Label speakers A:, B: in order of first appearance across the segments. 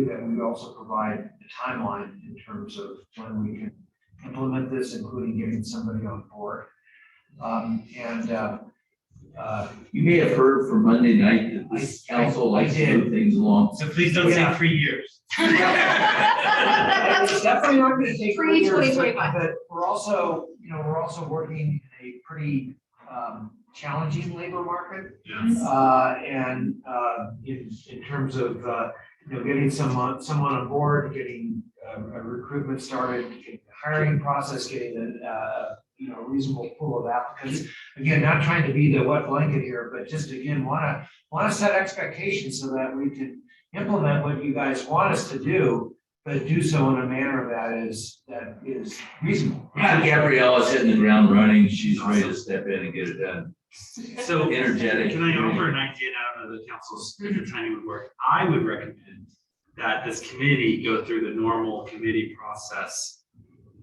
A: do that, we also provide a timeline in terms of when we can implement this, including getting somebody on board. Um, and, uh, uh,
B: You may have heard from Monday night that this
A: I- I-
B: council likes
A: I
B: to
A: did.
B: move things along.
C: So please don't say
A: Yeah.
C: three years.
A: It's definitely not gonna take. four
D: Pre-
A: years,
D: 2025.
A: But we're also, you know, we're also working in a pretty um challenging labor market.
D: Yes.
A: Uh, and uh, in in terms of, uh, you know, getting someone, someone on board, getting uh, a recruitment started, getting the hiring process, getting a, uh, you know, reasonable pool of applicants. Again, not trying to be the wet blanket here, but just again, wanna, wanna set expectations so that we can implement what you guys want us to do but do so in a manner that is, that is reasonable.
B: Yeah, Gabriella's hitting the ground running. She's ready to step in and get it done.
C: So
B: Energetic.
C: Can I offer an idea out of the council's, if
D: Mm-hmm.
C: the timing would work? I would recommend that this committee go through the normal committee process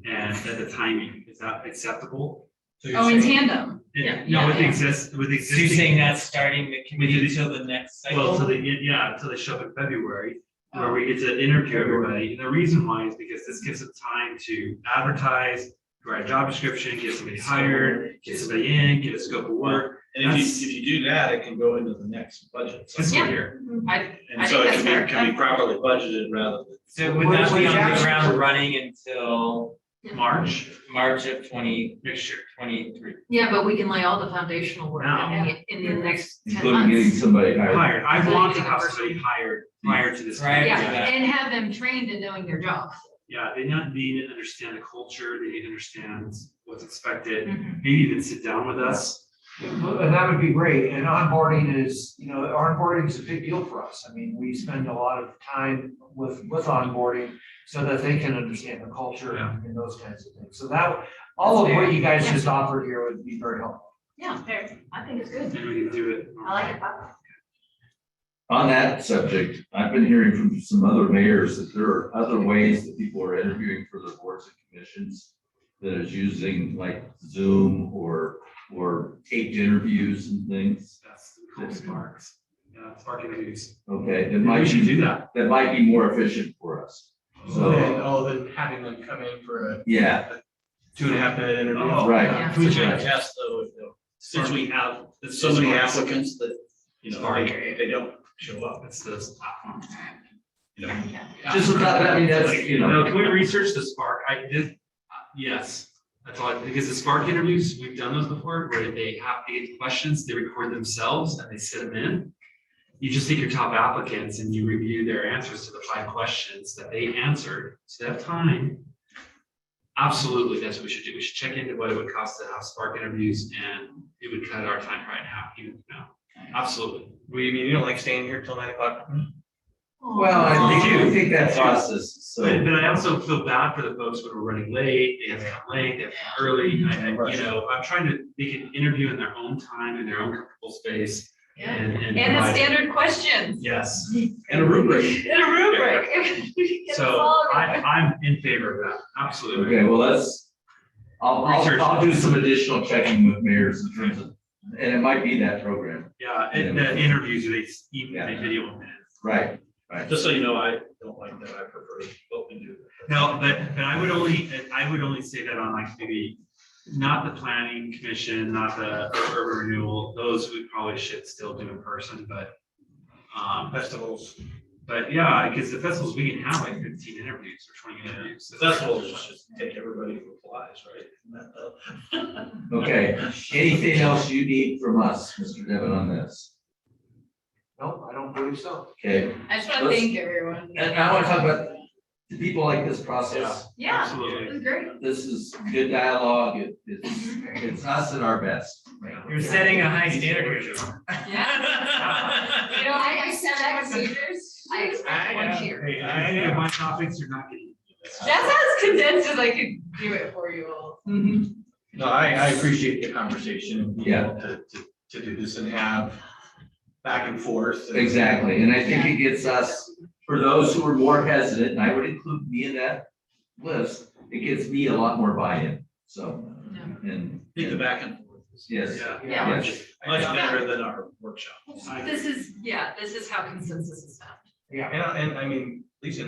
C: and that the timing, is that acceptable?
D: Oh, in tandem. Yeah,
C: No, with
D: yeah,
C: exist, with
E: So you're
C: existing.
E: saying not starting the committee until the next
C: Well,
E: cycle?
C: until they, get- yeah, until they show up in February, where
D: Oh.
C: we get to interview everybody. And the reason why is because this gives them time to advertise, write a job description, get somebody hired, get somebody in, get a scope of work.
F: And if you, if you do that, it can go into the next budget.
C: That's
D: Yeah.
C: what here.
D: I, I
F: And
D: think
F: so it
D: that's
F: can
D: fair.
F: be, can be properly budgeted rather than.
E: So it would not be on the
A: Jackson-
E: ground running until
C: March
E: March of twenty
C: next year.
E: twenty-three.
D: yeah, but we can lay all the foundational work in the, in the next ten
B: Including getting
D: months.
B: somebody hired.
C: Hired. I want to have somebody hired prior to this.
E: Prior to
C: meeting.
D: Yeah, and have them trained in knowing their job.
C: Yeah, they not, they need to understand the culture, they need to understand what's expected,
B: Mm-hmm.
C: maybe even sit down with us.
A: And that would be great, and onboarding is, you know, onboarding is a big deal for us, I mean, we spend a lot of time with, with onboarding so that they can understand the culture
C: Yeah.
A: and those kinds of things, so that, all of what you guys just offered here would be very helpful.
D: Yeah, fair. I think it's good.
C: And we can do it.
D: I like it.
B: On that subject, I've been hearing from some other mayors that there are other ways that people are interviewing for their boards and commissions that is using like Zoom or, or taped interviews and things.
C: That's cool sparks. Yeah, spark interviews.
B: Okay, that
C: We
B: might
C: should
B: be,
C: do that.
B: that might be more efficient for us.
F: Then,
B: So,
F: oh, then having them come in for a
B: yeah,
F: two and a half minute interview.
C: Oh,
B: right.
D: yeah.
F: Can we check test though, if, they'll-
C: Since we have.
F: there's so many applicants that, you know, they,
C: Sorry.
F: they don't show up,
C: It's uh, the platform.
F: you know.
B: Just, without- I mean, that's, you know.
C: No, can we research the spark? I did, uh, yes. That's all, I- because the spark interviews, we've done those before where they have, they get questions, they record themselves and they send them in. You just take your top applicants and you review their answers to the five questions that they answered. So they have time. Absolutely, that's what we should do. We should check into what it would cost to have spark interviews and it would cut our time right now, even now. Absolutely.
F: We, you don't like staying here till nine o'clock?
B: Well, I think, I
C: They do.
B: think that process,
C: But,
B: so,
C: but I also feel bad for the folks when we're running late, they have to come late, they have to come early,
D: Mm-hmm.
C: I, I- you know, I'm trying to, they can interview in their own time, in their own comfortable space.
D: Yeah.
C: And, and.
D: And the
C: provide-
D: standard questions.
C: Yes,
B: and a rubric.
D: In a rubric. If we get
C: so
D: all of it.
C: I, I'm in favor of that, absolutely.
B: Okay, well, let's, I'll,
C: Research.
B: I'll, I'll do some additional checking with mayors in terms of, and it might be that program,
C: Yeah, and the interviews, they, s- even
B: Yeah.
C: they video them.
B: right, right.
F: Just so you know, I don't like that. I prefer open to.
C: No, but, but I would only, I would only say that on like maybe, not the planning commission, not the urban renewal, those we probably should still do in person, but. Um,
F: Festivals,
C: But yeah, because the festivals, we can have like fifteen interviews or twenty interviews.
F: festivals is just take everybody who applies, right? Isn't that the-
B: Okay, anything else you need from us, Mr. Devon, on this?
A: No, I don't believe so.
B: Okay,
D: I just wanna
B: let's-
D: thank everyone.
B: and I wanna talk about, do people like this process?
D: Yeah, it
C: Absolutely.
D: was great.
B: This is good dialogue, it, it's, it's us at our best.
E: You're setting a high standard.
D: You know, I expect procedures. I expect one here.
C: Hey, I think my topics are not getting.
D: That's as condensed as I could do it for you all.
F: No, I, I appreciate the conversation. you
B: Yeah.
F: know, To, to, to do this and have back and forth. and-
B: Exactly, and I think it gets us, for those who are more hesitant, and I would include me in that list, it gets me a lot more buy-in, so, and.
F: I think the back and forth is
B: Yes,
D: Yeah.
B: yes,
F: much better than our workshop.
C: I-
D: This is, yeah, this is how consensus is found.
F: And, I- and I mean,
C: least in